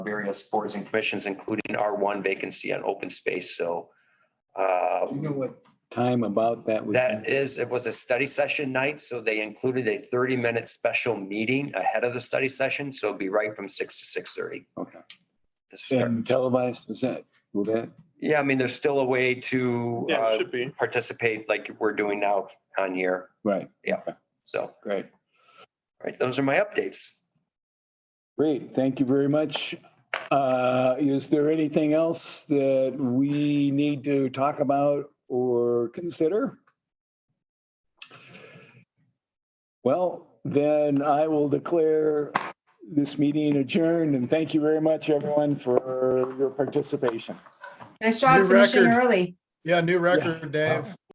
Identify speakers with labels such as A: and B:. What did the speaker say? A: various boards and commissions, including our one vacancy on open space. So uh,
B: Do you know what time about that would
A: that
B: be?
A: is, it was a study session night, so they included a 30-minute special meeting ahead of the study session. So it'd be right from 6 to 6:30.
B: Okay.
A: to start.
B: And televised, is that, will that,
A: Yeah, I mean, there's still a way to
C: Yeah,
A: uh,
C: it should be.
A: participate like we're doing now on here.
B: right,
A: So, all
B: great.
A: right, those are my updates.
B: Great, thank you very much. Uh, Is there anything else that we need to talk about or consider? Well, then I will declare this meeting adjourned and thank you very much, everyone, for your participation.
D: Nice job
E: New
D: finishing
E: record.
D: early.
E: Yeah, new record, Dave.